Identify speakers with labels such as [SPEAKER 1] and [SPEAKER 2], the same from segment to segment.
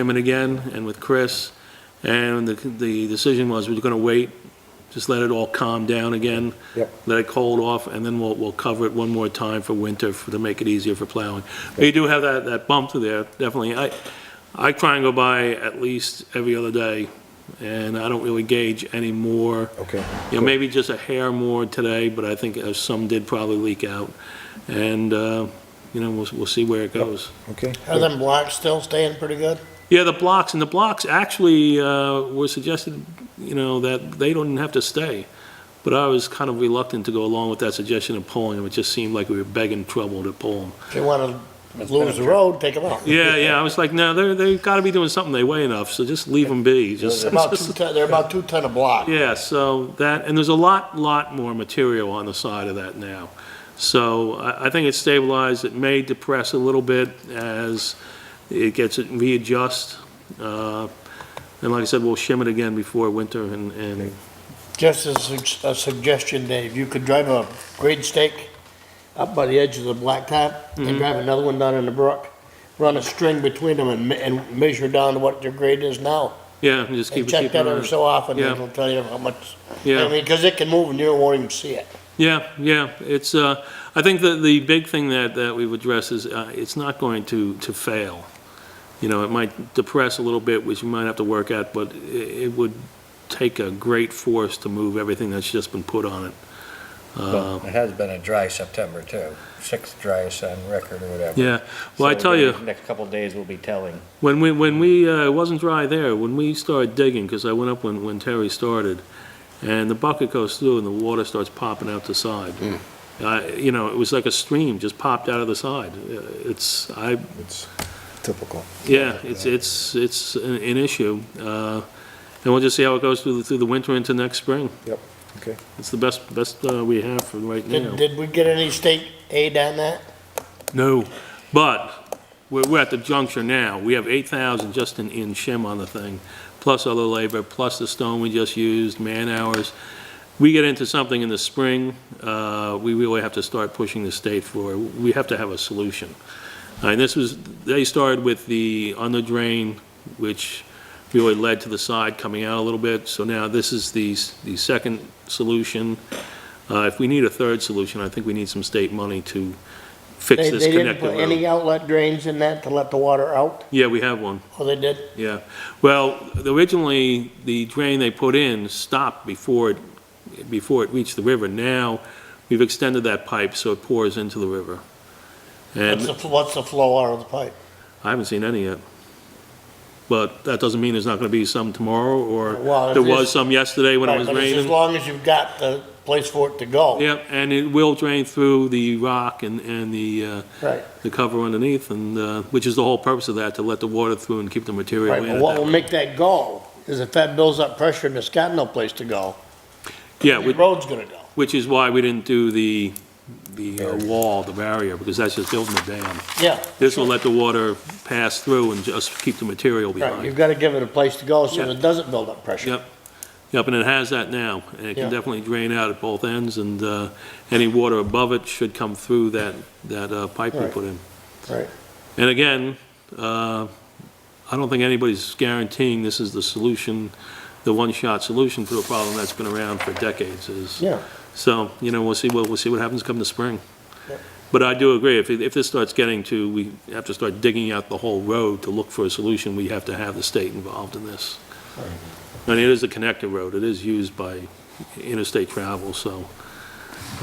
[SPEAKER 1] chairman again and with Chris, and the, the decision was we we're going to wait, just let it all calm down again.
[SPEAKER 2] Yep.
[SPEAKER 1] Let it cold off, and then we'll, we'll cover it one more time for winter for- to make it easier for plowing. But you do have that, that bump through there, definitely. I, I try and go by at least every other day, and I don't really gauge any more.
[SPEAKER 2] Okay.
[SPEAKER 1] You know, maybe just a hair more today, but I think uh, some did probably leak out. And, uh, you know, we'll, we'll see where it goes.
[SPEAKER 2] Okay.
[SPEAKER 3] Are them blocks still staying pretty good?
[SPEAKER 1] Yeah, the blocks, and the blocks actually uh, were suggested, you know, that they don't have to stay. But I was kind of reluctant to go along with that suggestion of pulling them. It just seemed like we were begging trouble to pull them.
[SPEAKER 3] If you want to lose the road, take them out.
[SPEAKER 1] Yeah, yeah, I was like, no, they're, they've got to be doing something. They weigh enough, so just leave them be. Just,
[SPEAKER 3] They're about two ton, they're about two ton a block.
[SPEAKER 1] Yeah, so that, and there's a lot, lot more material on the side of that now. So I, I think it's stabilized, it may depress a little bit as it gets it readjust. Uh, And like I said, we'll shim it again before winter and, and,
[SPEAKER 3] Just as a- a suggestion, Dave, you could drive a grade stake up by the edge of the blacktop
[SPEAKER 1] Mm-hmm.
[SPEAKER 3] and drive another one down in the brook. Run a string between them and, me- and measure down to what your grade is now.
[SPEAKER 1] yeah, and just keep
[SPEAKER 3] And
[SPEAKER 1] it,
[SPEAKER 3] check
[SPEAKER 1] keep it
[SPEAKER 3] that every
[SPEAKER 1] around.
[SPEAKER 3] so often,
[SPEAKER 1] Yeah.
[SPEAKER 3] it'll tell you how much. I
[SPEAKER 1] Yeah,
[SPEAKER 3] mean, because it can move and you won't even see it.
[SPEAKER 1] yeah, yeah, it's, uh, I think that the big thing that, that we've addressed is, uh, it's not going to, to fail. You know, it might depress a little bit, which you might have to work at, but i- it would take a great force to move everything that's just been put on it. Uh,
[SPEAKER 4] It has been a dry September too, sixth driest on record or whatever.
[SPEAKER 1] Yeah, well, I
[SPEAKER 5] So
[SPEAKER 1] tell you,
[SPEAKER 5] the Next couple of days will be telling.
[SPEAKER 1] when we, when we, uh, it wasn't dry there, when we started digging, because I went up when, when Terry started, and the bucket goes through and the water starts popping out the side. Uh, you know, it was like a stream just popped out of the side. Uh, It's, I,
[SPEAKER 2] It's typical.
[SPEAKER 1] Yeah, it's, it's, it's an an issue. Uh, And we'll just see how it goes through, the- through the winter into next spring.
[SPEAKER 2] Yep, okay.
[SPEAKER 1] It's the best, best uh, we have for right
[SPEAKER 3] Did,
[SPEAKER 1] now.
[SPEAKER 3] did we get any state aid on that?
[SPEAKER 1] No, but we're, we're at the juncture now. We have 8,000 just in, in shim on the thing, plus other labor, plus the stone we just used, man-hours. We get into something in the spring, uh, we really have to start pushing the state for, we have to have a solution. And this was, they started with the under drain, which really led to the side coming out a little bit. So now this is the, s- the second solution. Uh, If we need a third solution, I think we need some state money to fix
[SPEAKER 3] They,
[SPEAKER 1] this
[SPEAKER 3] they didn't
[SPEAKER 1] connected
[SPEAKER 3] put
[SPEAKER 1] road.
[SPEAKER 3] any outlet drains in that to let the water out?
[SPEAKER 1] Yeah, we have one,
[SPEAKER 3] Oh, they did?
[SPEAKER 1] yeah. Well, originally, the drain they put in stopped before it, before it reached the river. Now, we've extended that pipe so it pours into the river.
[SPEAKER 3] What's
[SPEAKER 1] And
[SPEAKER 3] the, what's the flow out of the pipe?
[SPEAKER 1] I haven't seen any yet. But that doesn't mean there's not gonna be some tomorrow,
[SPEAKER 3] Well,
[SPEAKER 1] or
[SPEAKER 3] it
[SPEAKER 1] there was
[SPEAKER 3] is-
[SPEAKER 1] some yesterday when it
[SPEAKER 3] Right,
[SPEAKER 1] was
[SPEAKER 3] but it's As
[SPEAKER 1] raining.
[SPEAKER 3] long as you've got the place for it to go.
[SPEAKER 1] Yep, and it will drain through the rock and, and the, uh,
[SPEAKER 3] Right,
[SPEAKER 1] the cover underneath, and, uh, which is the whole purpose of that, to let the water through and keep the material
[SPEAKER 3] right,
[SPEAKER 1] in.
[SPEAKER 3] but
[SPEAKER 1] at
[SPEAKER 3] what
[SPEAKER 1] that
[SPEAKER 3] will
[SPEAKER 1] way.
[SPEAKER 3] make that go is if that builds up pressure and it's got no place to go,
[SPEAKER 1] Yeah,
[SPEAKER 3] the
[SPEAKER 1] we-
[SPEAKER 3] road's gonna go.
[SPEAKER 1] Which is why we didn't do the, the uh, wall, the barrier, because that's just building a dam.
[SPEAKER 3] Yeah,
[SPEAKER 1] This will let the water pass through and just keep the material
[SPEAKER 3] right, you've
[SPEAKER 1] behind.
[SPEAKER 3] gotta give it a place to go so
[SPEAKER 1] Yeah.
[SPEAKER 3] that it doesn't build up pressure.
[SPEAKER 1] Yep. Yep, and it has that now, and it
[SPEAKER 3] Yeah.
[SPEAKER 1] can definitely drain out at both ends, and uh, any water above it should come through that, that uh, pipe we
[SPEAKER 3] Right.
[SPEAKER 1] put in.
[SPEAKER 3] Right.
[SPEAKER 1] And again, uh, I don't think anybody's guaranteeing this is the solution, the one-shot solution to a problem that's been around for decades, is
[SPEAKER 3] Yeah,
[SPEAKER 1] So, you know, we'll see, what we'll see what happens come the spring.
[SPEAKER 3] Yep.
[SPEAKER 1] But I do agree, if, it- if this starts getting to, we have to start digging out the whole road to look for a solution, we have to have the state involved in this. And it is a connector road, it is used by interstate travel, so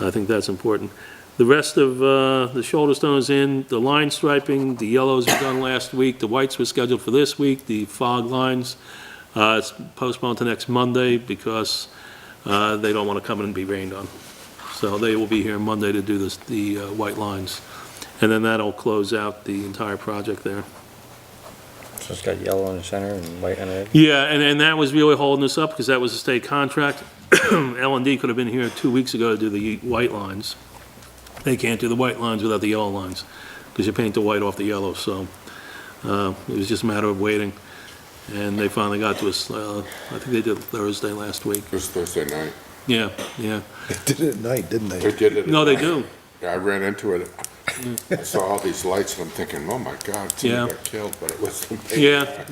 [SPEAKER 1] I think that's important. The rest of, uh, the shoulder stones in, the line striping, the yellows were done last week, the whites were scheduled for this week, the fog lines, uh, it's postponed to next Monday because uh, they don't want to come in and be rained on. So they will be here Monday to do this, the uh, white lines. And then that'll close out the entire project there.
[SPEAKER 4] So it's got yellow in the center and white on it.
[SPEAKER 1] Yeah, and, and that was really holding us up because that was a state contract. L and D could have been here two weeks ago to do the white lines. They can't do the white lines without the yellow lines because you paint the white off the yellow, so uh, it was just a matter of waiting. And they finally got to us, uh, I think they did Thursday last week.
[SPEAKER 6] It was Thursday night.
[SPEAKER 1] Yeah, yeah.
[SPEAKER 2] They did it at night, didn't
[SPEAKER 6] They
[SPEAKER 2] they?
[SPEAKER 6] did it. at
[SPEAKER 1] No, they
[SPEAKER 6] night.
[SPEAKER 1] do.
[SPEAKER 6] Yeah, I ran into it. I saw all these lights and I'm thinking, oh my God, somebody
[SPEAKER 1] Yeah.
[SPEAKER 6] got killed, but it was.
[SPEAKER 1] Yeah.